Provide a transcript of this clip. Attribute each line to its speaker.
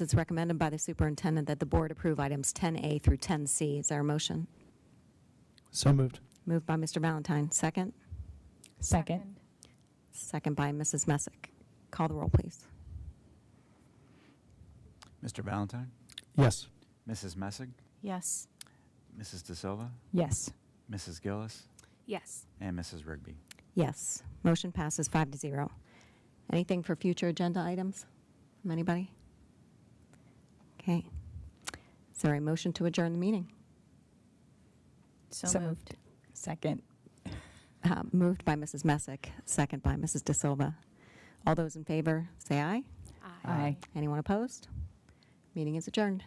Speaker 1: It's recommended by the superintendent that the board approve items 10A through 10C. Is there a motion?
Speaker 2: So moved.
Speaker 1: Moved by Mr. Valentine, second.
Speaker 3: Second.
Speaker 1: Second by Mrs. Messick. Call the roll, please.
Speaker 4: Mr. Valentine,
Speaker 2: Yes.
Speaker 4: Mrs. Messig,
Speaker 3: Yes.
Speaker 4: Mrs. De Silva,
Speaker 3: Yes.
Speaker 4: Mrs. Gillis,
Speaker 3: Yes.
Speaker 4: and Mrs. Rigby.
Speaker 1: Yes, motion passes five to zero. Anything for future agenda items from anybody? Okay. Is there a motion to adjourn the meeting?
Speaker 3: So moved. Second.
Speaker 1: Uh, Moved by Mrs. Messick, second by Mrs. De Silva. All those in favor, say aye.
Speaker 3: Aye.
Speaker 1: Anyone opposed? Meeting is adjourned.